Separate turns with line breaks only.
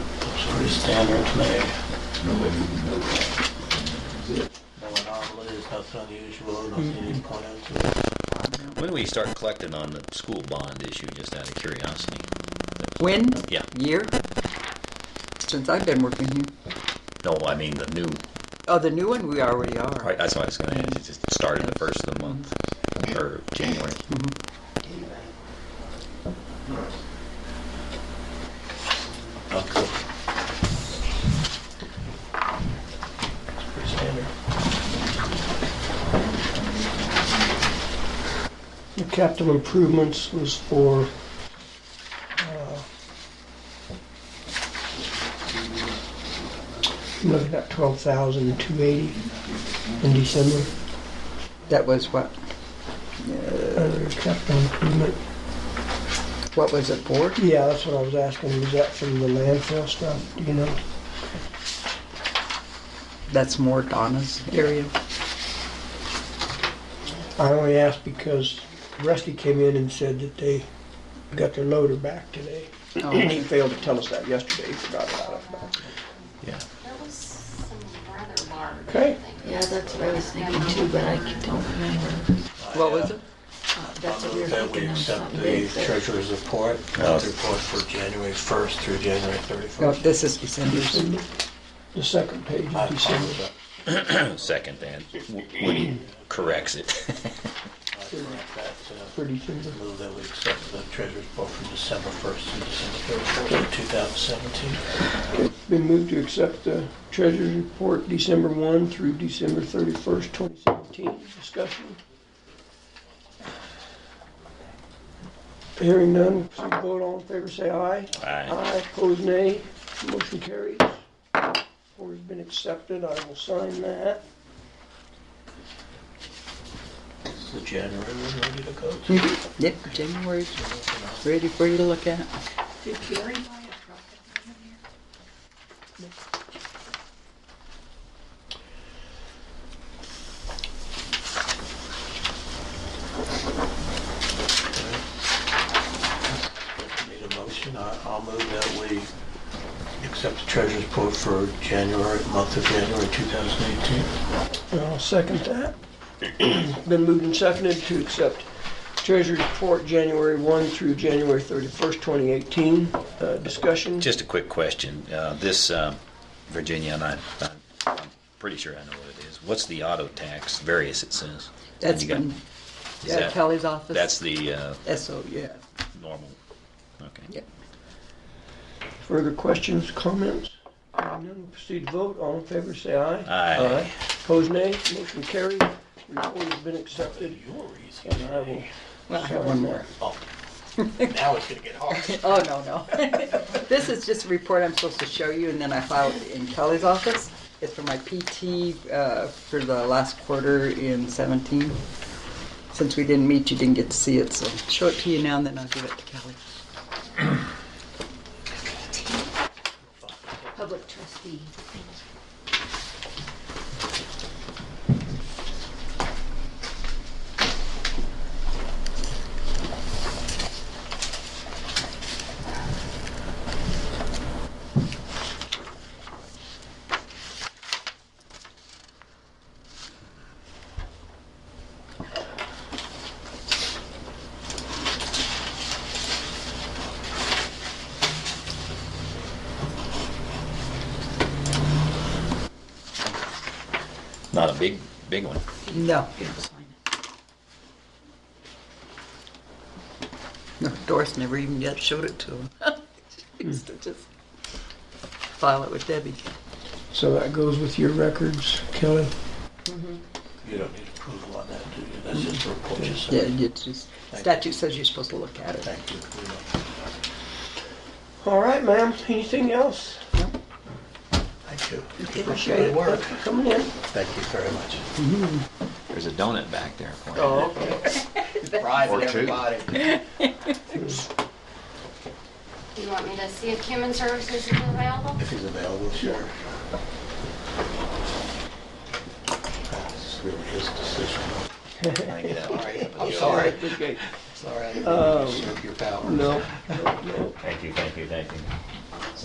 pretty standard to me. No anomalies, nothing unusual, nothing you can point out to.
When do we start collecting on the school bond issue, just out of curiosity?
When?
Yeah.
Year? Since I've been working here.
No, I mean the new,
Oh, the new one, we already are.
right, that's what I was gonna ask, it just started the first of the month, or January.
Oh, cool. It's pretty standard.
The capital improvements was for, uh, I'm looking at twelve thousand two eighty in December,
That was what?
under capital improvement.
What was it for?
Yeah, that's what I was asking, was that from the landfill stuff, do you know?
That's more Donna's area.
I only asked because Rusty came in and said that they got their loader back today. And he
Oh,
failed to tell us that yesterday, he forgot about it.
Yeah.
That was some rather large.
Okay.
Yeah, that's what I was thinking too, but I don't remember.
What was it?
Uh, That's what we were
Move That we
thinking of
accept
something
the
big. but-
treasurer's report,
Oh.
the report for January 1st through January
No,
31st.
Oh, this is December's.
The second page
I
is December.
followed that.
Second then, when he corrects it.
I correct that,
for December.
uh, Move that we accept the treasurer's report from December 1st through December 31st, 2017.
Been moved to accept the treasurer's report December 1 through December 31st, 2017. Discussion. Hearing none, proceed to vote. All in favor, say aye.
Aye.
Aye, opposed, nay. Motion carries. Report's been accepted. I will sign that.
Is the January one ready to go?
Yep, January's ready for you to look at.
Did Gary buy a truck at the end of the year?
Need a motion, I- I'll move that we accept the treasurer's report for January, month of January 2018.
And I'll second that. Been moved and seconded to accept treasurer's report January 1 through January 31st, 2018. Uh, Discussion.
Just a quick question, uh, this, um, Virginia, and I, I'm pretty sure I know what it is, what's the auto tax, various it says?
That's
You got-
been,
is
yeah,
that-
Kelly's office.
That's the, uh,
SO, yeah.
normal, okay.
Yep.
Further questions, comments? Hearing none, proceed to vote. All in favor, say aye.
Aye.
Opposed, nay. Motion carried. Report has been accepted. And I will
Well, I have one more.
Oh, now it's gonna get hard.
Oh, no, no. This is just a report I'm supposed to show you, and then I filed it in Kelly's office. It's for my PT uh, for the last quarter in 17. Since we didn't meet, you didn't get to see it, so I'll show it to you now, and then I'll give it to Kelly.
Public trustee.
Not a big, big one.
No, no, Doris never even yet showed it to him. She used to just file it with Debbie.
So that goes with your records, Kelly.
You don't need approval on that, do you? That's just a report, just
Yeah,
saying.
you just, statute says you're supposed to look at it.
Thank you. We don't-
All right, ma'am. Anything else?
Thank you.
Appreciate it. Thanks for Coming in.
Thank you very much.
There's a donut back there. for you.
Oh, okay.
Private, everybody.
Do you want me to see if human services is available?
If he's available, sure. That's really his decision.
I get out.
I'm sorry.
Okay.
Sorry, I didn't
Um,
mean to usurp your power.
No.
Thank you, thank you, thank you.